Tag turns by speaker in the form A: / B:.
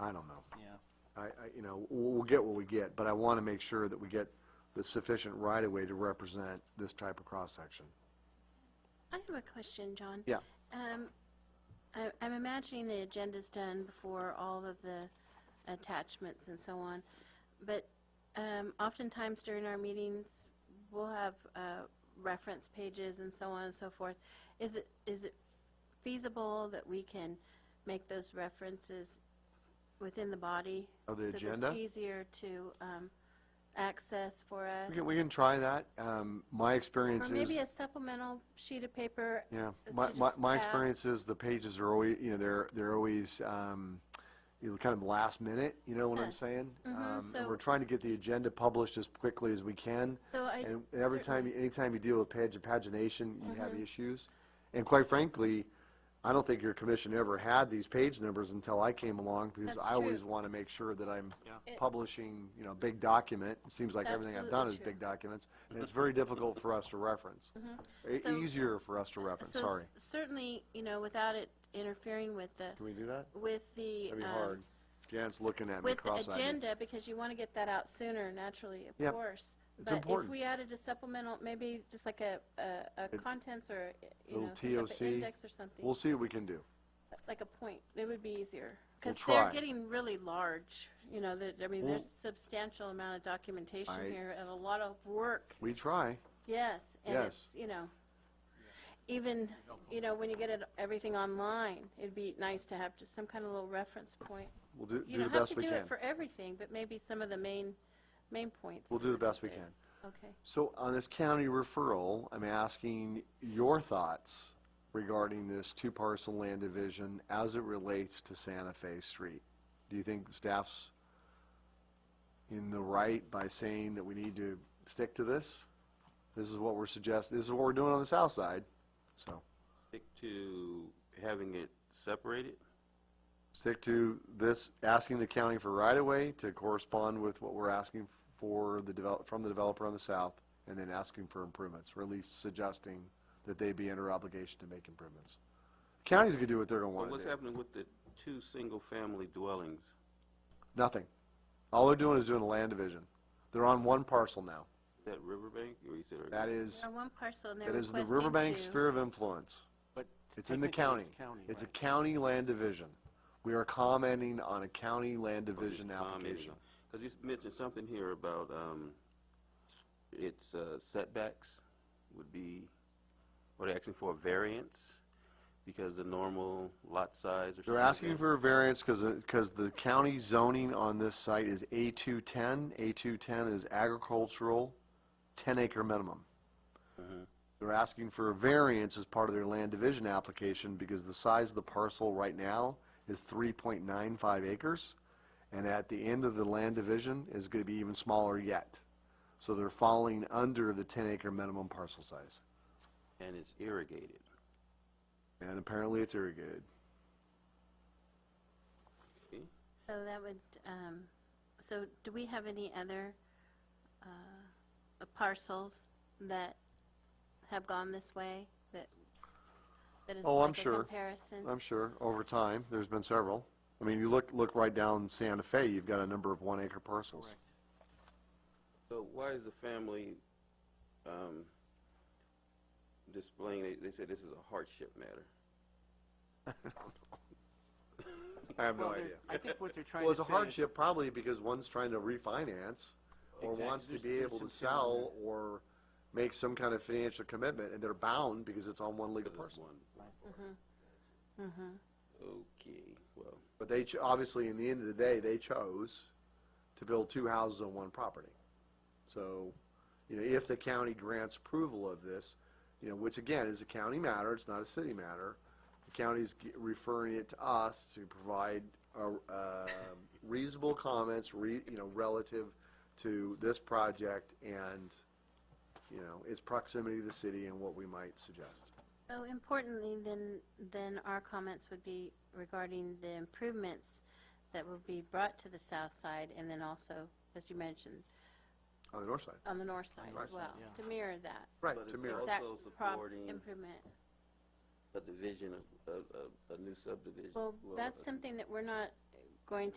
A: I don't know.
B: yeah.
A: I, I, you know, we'll, we'll get what we get, but I want to make sure that we get the sufficient right-of-way to represent this type of cross-section.
C: I have a question, John.
A: Yeah.
C: Um, I, I'm imagining the agenda's done before all of the attachments and so on, but, um, oftentimes during our meetings, we'll have, uh, reference pages and so on and so forth. Is it, is it feasible that we can make those references within the body?
A: Of the
C: So
A: agenda?
C: that it's easier to, um, access for us?
A: We can, we can try that. Um, my experience
C: Or
A: is.
C: maybe a supplemental sheet of paper
A: Yeah,
C: to
A: my, my,
C: just
A: my
C: add-
A: experience is the pages are always, you know, they're, they're always, um, you know, kind of last minute, you know what I'm
C: Yes.
A: saying?
C: Mhm,
A: Um, And
C: so-
A: we're trying to get the agenda published as quickly as we can.
C: So I
A: And every time,
C: certainly- Mm-hmm.
A: anytime you deal with page, pagination, you have issues. And quite frankly, I don't think your commission ever had these page numbers until I came along, because
C: That's
A: I always
C: true.
A: want to make sure that I'm
B: Yeah.
C: It-
A: publishing, you know, a big document. It seems like everything I've done
C: Absolutely
A: is
C: true.
A: big documents, and it's very difficult for us to reference. E-
C: Mm-hmm. So- uh,
A: Easier for us to reference,
C: so
A: sorry.
C: s- Certainly, you know, without it interfering with the,
A: Can we do that?
C: with the.
A: That'd be
C: um,
A: hard. Jan's looking at me
C: With the
A: cross-eyed.
C: agenda, because you want to get that out sooner, naturally, of
A: Yep.
C: course.
A: It's
C: But if
A: important.
C: we added a supplemental, maybe just like a, a, a contents or, you know,
A: Little
C: some type of
A: TOC.
C: index or something,
A: We'll see what we can do.
C: like a point. It would be easier. Because
A: We'll
C: they're
A: try.
C: getting really large, you know, that, I mean,
A: We'll-
C: there's substantial amount of documentation
A: I-
C: here and a lot of work
A: We try.
C: Yes, and it's,
A: Yes.
C: you know, even, you know, when you get it, everything online, it'd be nice to have just some kind of little reference point.
A: We'll do, do
C: You
A: the
C: don't have
A: best
C: to
A: we
C: do
A: can.
C: it for everything, but maybe some of the main, main points.
A: We'll do the best we can.
C: Okay.
A: So on this county referral, I'm asking your thoughts regarding this two parcel land division as it relates to Santa Fe Street. Do you think staff's in the right by saying that we need to stick to this? This is what we're suggesting, this is what we're doing on the south side, so.
D: Stick to having it separated?
A: stick to this, asking the county for right-of-way to correspond with what we're asking for the develop, from the developer on the south, and then asking for improvements, or at least suggesting that they be under obligation to make improvements. Counties can do what they're gonna
D: But
A: wanna
D: what's
A: do.
D: happening with the two single-family dwellings?
A: Nothing. All they're doing is doing a land division. They're on one parcel now.
D: Is that Riverbank, or you said? or-
A: That is,
C: Now, one parcel, and they're
A: that is the
C: requesting
A: Riverbank
C: two.
A: sphere of influence.
B: But
A: It's in the
B: technically
A: county.
B: it's county,
A: It's a
B: right?
A: county land division. We are commenting on a county land
D: or just
A: division application.
D: Because you s- mentioned something here about, um, its uh, setbacks would be, or they're asking for a variance because the normal lot size or something
A: They're
D: like
A: asking
D: that.
A: for a variance because, because the county zoning on this site is A210. A210 is agricultural, 10-acre minimum. They're asking for a variance as part of their land division application because the size of the parcel right now is 3.95 acres, and at the end of the land division is going to be even smaller yet. So they're falling under the 10-acre minimum parcel size,
D: And it's irrigated.
A: and apparently it's irrigated.
D: See?
C: So that would, um, so do we have any other, uh, parcels that have gone this way, that, that is
A: Oh, I'm
C: like a
A: sure.
C: comparison?
A: I'm sure, over time, there's been several. I mean, you look, look right down Santa Fe, you've got a number of one-acre parcels.
B: Correct.
D: So why is the family um, displaying, they- they said this is a hardship matter?
A: I have
B: Well, they're- I think what they're trying
A: Well,
B: to
A: it's
B: say
A: a
B: is.
A: hardship probably because one's trying to refinance, or
B: Exactly.
A: wants to
B: There's-
A: be
B: there's
A: able to
B: some similar-
A: sell, or make some kind of financial commitment, and they're bound because it's on one legal
D: Because it's
A: parcel.
D: one. Okay, well,
A: But they, cho- obviously, in the end of the day, they chose to build two houses on one property. So, you know, if the county grants approval of this, you know, which again is a county matter, it's not a city matter, the county's g- referring it to us to provide uh, um, reasonable comments, re, you know, relative to this project and, you know, its proximity to the city and what we might suggest.
C: So importantly, then, then our comments would be regarding the improvements that would be brought to the south side, and then also, as you mentioned,
A: On the north side.
C: on the north side
A: North
C: as
A: side,
C: well,
B: yeah.
C: to mirror that.
A: Right,
D: But
A: to
D: it's
A: mirror.
D: also
C: exact prop-
D: supporting-
C: Improvement.
D: a division of, of, of a new subdivision.
C: Well,
D: Well,
C: that's
D: a-
C: something that we're not going to.